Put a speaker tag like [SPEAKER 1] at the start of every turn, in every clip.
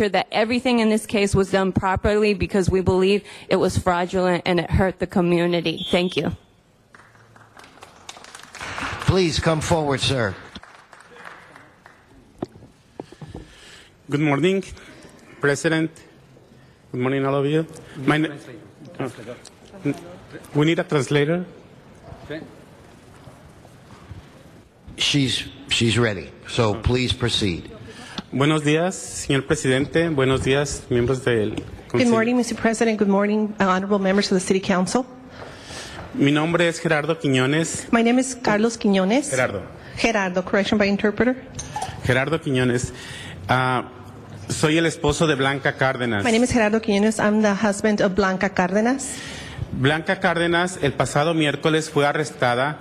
[SPEAKER 1] sure that everything in this case was done properly because we believe it was fraudulent and it hurt the community. Thank you.
[SPEAKER 2] Please come forward, sir.
[SPEAKER 3] Good morning, President. Good morning, all of you. My na- Uh, we need a translator.
[SPEAKER 2] She's she's ready. So please proceed.
[SPEAKER 3] Buenos días, señor presidente. Buenos días, miembros del
[SPEAKER 4] Good
[SPEAKER 3] Consejo.
[SPEAKER 4] morning, Mr. President. Good morning, uh, honorable members of the City Council.
[SPEAKER 3] Mi nombre es Gerardo Quiñones.
[SPEAKER 4] My name is Carlos Quiñones.
[SPEAKER 3] Gerardo.
[SPEAKER 4] Gerardo, correction by interpreter.
[SPEAKER 3] Gerardo Quiñones. Ah, soy el esposo de Blanca Cárdenas.
[SPEAKER 4] My name is Gerardo Quiñones. I'm the husband of Blanca Cárdenas.
[SPEAKER 3] Blanca Cárdenas el pasado miércoles fue arrestada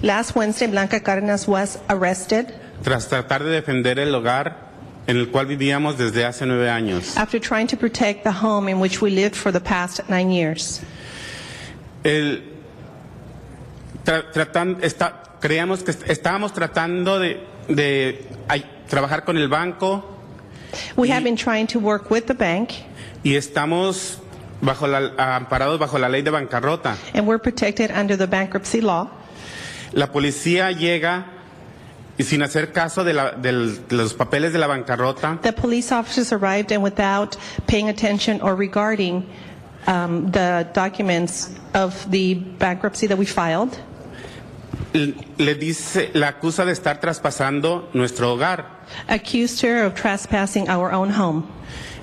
[SPEAKER 4] Last Wednesday, Blanca Cárdenas was arrested
[SPEAKER 3] tras tratar de defender el hogar en el cual vivíamos desde hace nueve años.
[SPEAKER 4] after trying to protect the home in which we lived for the past nine years.
[SPEAKER 3] el tra- tratan- está- creíamos que est- estábamos tratando de, de ay- trabajar con el banco
[SPEAKER 4] We have been trying to work with the bank,
[SPEAKER 3] y estamos bajo la, amparados bajo la ley de bancarrota.
[SPEAKER 4] and we're protected under the bankruptcy law.
[SPEAKER 3] La policía llega y sin hacer caso de, la- del- de los papeles de la bancarrota,
[SPEAKER 4] The police officers arrived, and without paying attention or regarding um, the documents of the bankruptcy that we filed,
[SPEAKER 3] l- le dice, la acusa de estar traspasando nuestro hogar
[SPEAKER 4] accused her of trespassing our own home.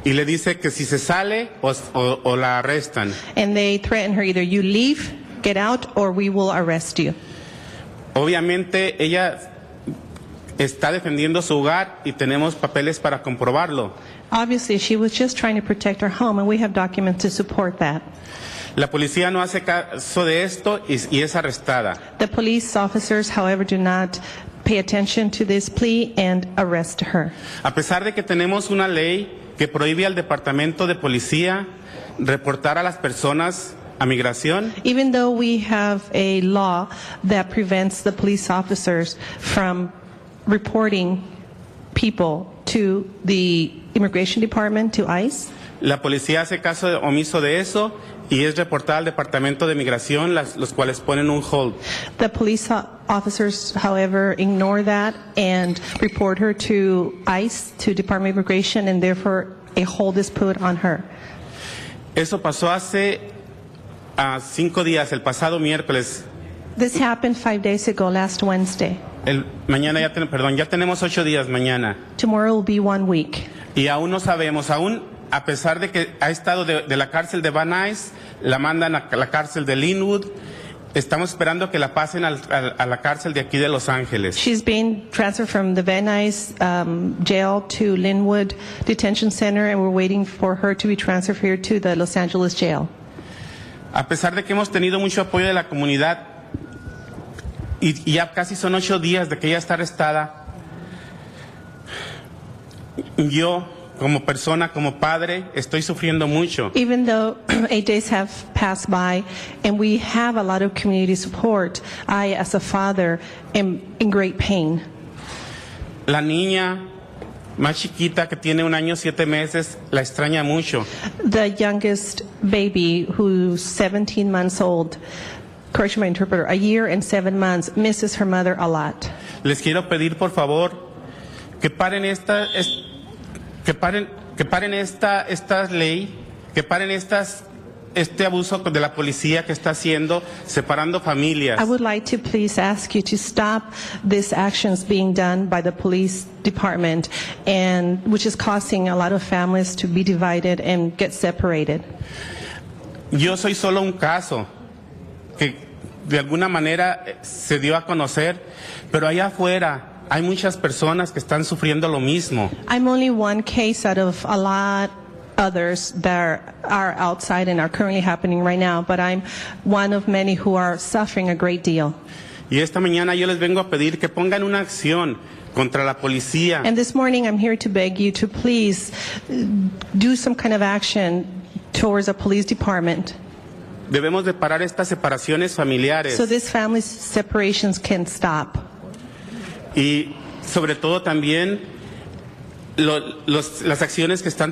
[SPEAKER 3] y le dice que si se sale o- o- o la arrestan.
[SPEAKER 4] And they threatened her either you leave, get out, or we will arrest you.
[SPEAKER 3] Obviamente ella está defendiendo su hogar y tenemos papeles para comprobarlo.
[SPEAKER 4] Obviously, she was just trying to protect her home, and we have documents to support that.
[SPEAKER 3] La policía no hace caso de esto y, y es arrestada.
[SPEAKER 4] The police officers, however, do not pay attention to this plea and arrest her.
[SPEAKER 3] A pesar de que tenemos una ley que prohíbe al departamento de policía reportar a las personas a migración,
[SPEAKER 4] Even though we have a law that prevents the police officers from reporting people to the Immigration Department, to ICE,
[SPEAKER 3] la policía hace caso omiso de eso y es reportada al departamento de migración, las- los cuales ponen un hold.
[SPEAKER 4] the police o- officers, however, ignore that and report her to ICE, to Department of Immigration, and therefore a hold is put on her.
[SPEAKER 3] Eso pasó hace ah, cinco días, el pasado miércoles.
[SPEAKER 4] This happened five days ago, last Wednesday.
[SPEAKER 3] El- mañana ya, ten- perdón, ya tenemos ocho días mañana.
[SPEAKER 4] Tomorrow will be one week.
[SPEAKER 3] Y aún no sabemos, aún a pesar de que ha estado de, de la cárcel de Van Nuys, la mandan a la cárcel de Linwood, estamos esperando que la pasen al- al- a la cárcel de aquí de Los Ángeles.
[SPEAKER 4] She's been transferred from the Van Nuys um, jail to Linwood Detention Center, and we're waiting for her to be transferred here to the Los Angeles jail.
[SPEAKER 3] A pesar de que hemos tenido mucho apoyo de la comunidad, y, y ya casi son ocho días de que ella está arrestada, yo como persona, como padre, estoy sufriendo mucho.
[SPEAKER 4] Even though eight days have passed by, and we have a lot of community support, I, as a father, am in great pain.
[SPEAKER 3] La niña más chiquita que tiene un año siete meses la extraña mucho.
[SPEAKER 4] The youngest baby, who's 17 months old, correction my interpreter, a year and seven months, misses her mother a lot.
[SPEAKER 3] Les quiero pedir por favor que paren esta es- que paren que paren esta esta ley, que paren estas este abuso de la policía que está haciendo separando familias.
[SPEAKER 4] I would like to please ask you to stop these actions being done by the police department, and which is causing a lot of families to be divided and get separated.
[SPEAKER 3] Yo soy solo un caso que de alguna manera eh, se dio a conocer, pero allá afuera hay muchas personas que están sufriendo lo mismo.
[SPEAKER 4] I'm only one case out of a lot others that are outside and are currently happening right now, but I'm one of many who are suffering a great deal.
[SPEAKER 3] Y esta mañana yo les vengo a pedir que pongan una acción contra la policía.
[SPEAKER 4] And this morning, I'm here to beg you to please uh, do some kind of action towards the police department.
[SPEAKER 3] Debemos de parar estas separaciones familiares.
[SPEAKER 4] So these family separations can stop.
[SPEAKER 3] y sobre todo también lo- los- las acciones que están